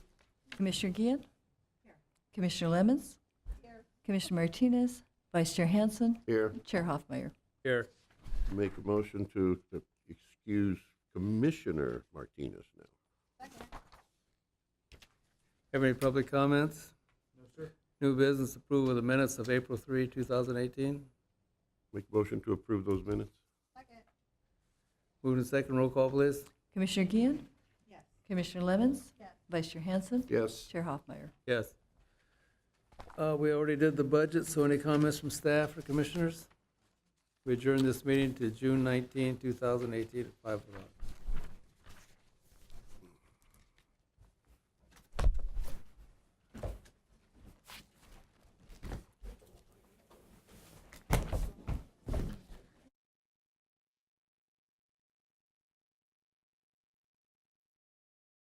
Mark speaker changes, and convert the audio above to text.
Speaker 1: Commissioner Gian? Commissioner Lemons? Commissioner Martinez? Vice Chair Hansen?
Speaker 2: Here,
Speaker 1: Chair Hoffmeyer?
Speaker 3: Here.
Speaker 2: make a motion to to excuse Commissioner Martinez now.
Speaker 3: Have any public comments? No, sir. New business approval of the minutes of April 3, 2018.
Speaker 2: Make a motion to approve those minutes?
Speaker 3: Moved and second, roll call, please.
Speaker 1: Commissioner Gian? Yes. Commissioner Lemons? Vice Chair Hansen?
Speaker 2: Yes.
Speaker 1: Chair Hoffmeyer?
Speaker 3: Yes. Uh, We already did the budget, so any comments from staff or commissioners? We adjourn this meeting to June 19, 2018 at 5 o'clock.